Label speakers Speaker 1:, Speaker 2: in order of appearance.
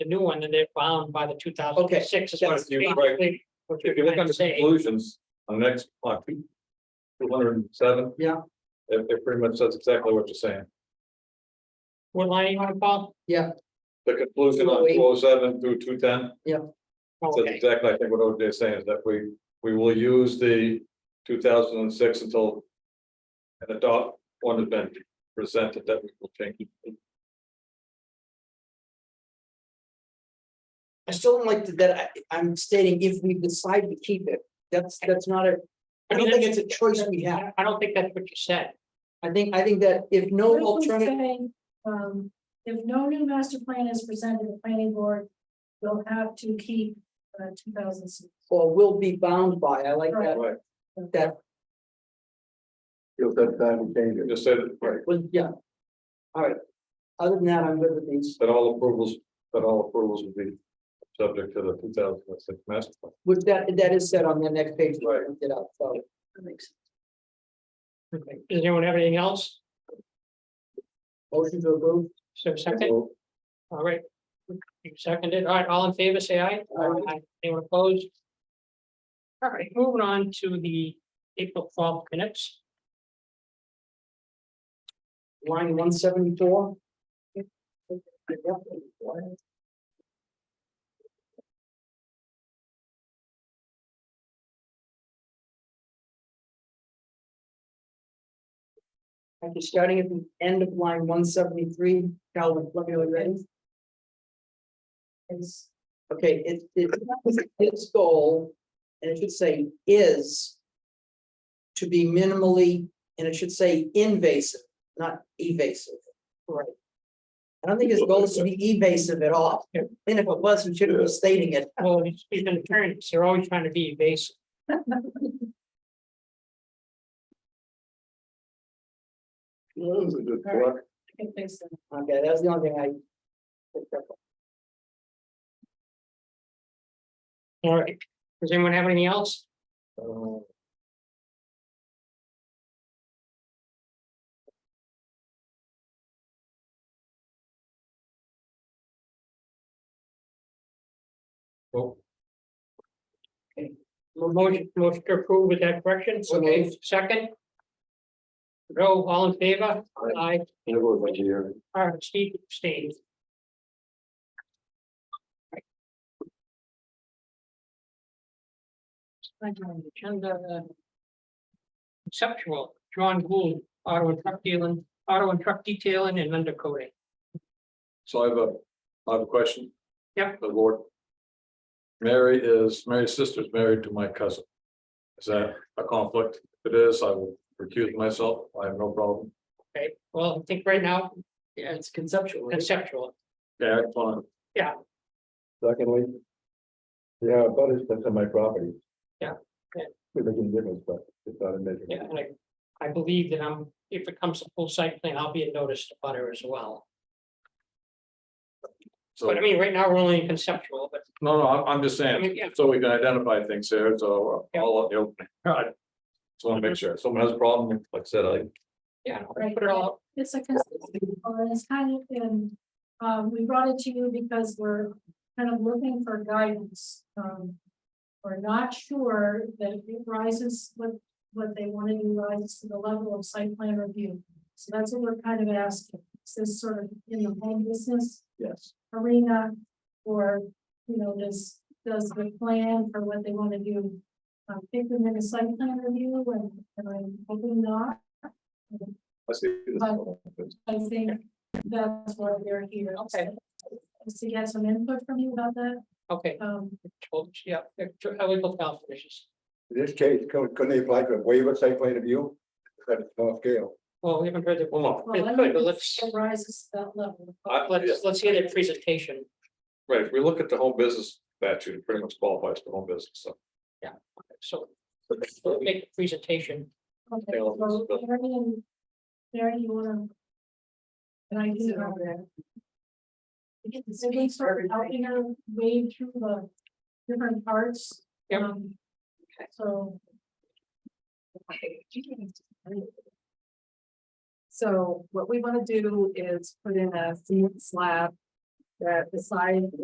Speaker 1: new one and they're bound by the two thousand six.
Speaker 2: Okay, that's- you're right.
Speaker 1: What you're
Speaker 2: If you look
Speaker 1: trying
Speaker 2: on
Speaker 1: to
Speaker 2: the
Speaker 1: say.
Speaker 2: conclusions on the next block. Two hundred and seven.
Speaker 3: Yeah.
Speaker 2: It, it pretty much says exactly what you're saying.
Speaker 1: What line you wanna call?
Speaker 2: The conclusion on
Speaker 3: Wait.
Speaker 2: two oh seven through two ten. That's
Speaker 1: Okay,
Speaker 2: exactly, I think what OJ is saying is that we, we will use the two thousand and six until. An adopt one has been presented that we will change.
Speaker 3: I still don't like that, I, I'm stating if we decide to keep it, that's, that's not a, I don't think it's a choice we have.
Speaker 1: I don't think that's what you said.
Speaker 3: I think, I think that if no
Speaker 4: This was
Speaker 3: alternative,
Speaker 4: saying, Um, if no new master plan is presented, the planning board will have to keep, uh, two thousand six.
Speaker 3: or will be bound by, I like that,
Speaker 2: Right,
Speaker 3: that,
Speaker 2: if that time changes. Just say that, right,
Speaker 3: was, yeah. All right, other than that, I'm good with these,
Speaker 2: that all approvals, that all approvals will be subject to the two thousand and six master plan.
Speaker 3: with that, that is said on the next page.
Speaker 2: Right.
Speaker 3: Get out, so.
Speaker 1: Okay. Does anyone have anything else?
Speaker 3: Motion to approve.
Speaker 1: So second, all right. You seconded, all right, all in favor, say aye.
Speaker 3: Aye.
Speaker 1: Anyone opposed? All right, moving on to the April twelfth minutes.
Speaker 3: line one seventy-four. Okay, starting at the end of line one seventy-three, Calvin, let me know when you're ready. It's, okay, it, it, its goal, and it should say is to be minimally, and it should say invasive not evasive. Right. I don't think his goal is to be evasive at all.
Speaker 1: Yeah.
Speaker 3: And if it was, we shouldn't be stating it.
Speaker 1: Well, he's he's an attorney, so they're always trying to be evasive.
Speaker 4: I think so.
Speaker 3: Okay, that was the only thing I. picked up on.
Speaker 1: All right, does anyone have anything else?
Speaker 2: Well,
Speaker 1: Motion, motion to approve with that correction,
Speaker 3: So
Speaker 1: okay,
Speaker 3: moved.
Speaker 1: second. Go, all in favor?
Speaker 2: Aye.
Speaker 1: Aye.
Speaker 2: I will wait here.
Speaker 1: All right, Steve abstains. Thank you, on the agenda, uh, Conceptual, John Gould, auto and truck dealing, auto and truck detailing and undercoating.
Speaker 2: So I have a, I have a question.
Speaker 1: Yeah.
Speaker 2: The Lord. Mary is, Mary's sister's married to my cousin. Is that a conflict? If it is, I will recuse myself. I have no problem.
Speaker 1: Okay, well, I think right now
Speaker 3: Yeah, it's conceptual. right?
Speaker 1: conceptual,
Speaker 2: Yeah, it's fine.
Speaker 1: Yeah.
Speaker 2: Secondly. Yeah, but it's, that's on my property.
Speaker 1: Yeah, okay.
Speaker 2: It doesn't difference, but it's not a major.
Speaker 1: yeah, and I. I believe that I'm, if it comes to full site plan, I'll be a notice to butter as well,
Speaker 2: So,
Speaker 1: but I mean, right now, we're only in conceptual, but
Speaker 2: no, no, I'm, I'm just
Speaker 1: I mean,
Speaker 2: saying,
Speaker 1: yeah.
Speaker 2: so we can identify things here, so uh, all of you. Just want to
Speaker 1: Mhm.
Speaker 2: make sure. If someone has a problem, like I said, I.
Speaker 1: yeah, I'll put it all, up.
Speaker 4: It's a consistency, and it's kind of been, um, we brought it to you because we're kind of looking for guidance, um. We're not sure that it rises, what, what they want to do rises to the level of site plan review. So that's what we're kind of asking, is this sort of in the home business
Speaker 2: Yes.
Speaker 4: arena? Or, you know, does, does the plan for what they want to do, um, fit within a site plan review, and, and I'm hoping not.
Speaker 2: I see. this.
Speaker 4: I think that's why we're here.
Speaker 1: Okay.
Speaker 4: Is to get some input from you about that,
Speaker 1: okay,
Speaker 4: um,
Speaker 1: told- yeah, illegal health issues.
Speaker 5: In this case, couldn't couldn't they apply for a waiver site plan review? At a small scale.
Speaker 1: Well, we haven't heard that.
Speaker 2: Well, no,
Speaker 4: well,
Speaker 1: It's
Speaker 4: I
Speaker 1: good,
Speaker 4: don't
Speaker 1: but
Speaker 4: know
Speaker 1: let's,
Speaker 4: if it rises to that level.
Speaker 2: I- yeah.
Speaker 1: let's, let's hear that presentation.
Speaker 2: Right, if we look at the home business statute, it pretty much qualifies for home business, so.
Speaker 1: So we'll make the presentation.
Speaker 4: Okay,
Speaker 2: They'll-
Speaker 4: so Mary and, Mary, you wanna? Can I do
Speaker 3: Yeah.
Speaker 4: that? Get the city sort of helping her wade through the different parts.
Speaker 1: Yep.
Speaker 4: Um, So.
Speaker 6: So what we want to do is put in a cement slab that the side